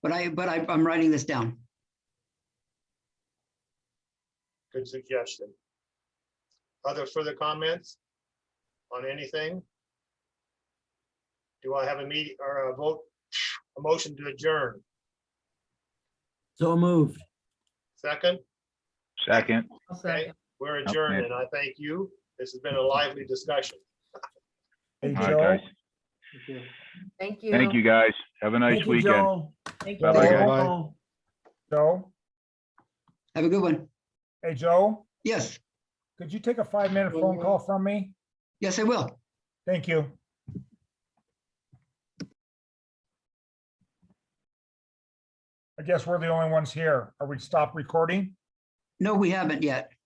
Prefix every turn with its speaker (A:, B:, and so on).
A: But I, but I, I'm writing this down.
B: Good suggestion. Other further comments on anything? Do I have a meeting or a vote, a motion to adjourn?
C: So moved.
B: Second,
D: Second.
E: I'll second.
B: we're adjourned and I thank you. This has been a lively discussion.
F: Hey,
D: All right, guys.
F: Joe.
E: Thank you.
D: Thank you, guys. Have a nice
C: Thank you,
D: weekend.
C: Joe.
E: Thank you.
D: Bye-bye, guys.
F: Joe. Joe,
A: Have a good one.
F: hey, Joe,
A: Yes,
F: could you take a five-minute phone call from me?
A: yes, I will.
F: Thank you. I guess we're the only ones here. Are we stopped recording?
A: No, we haven't yet.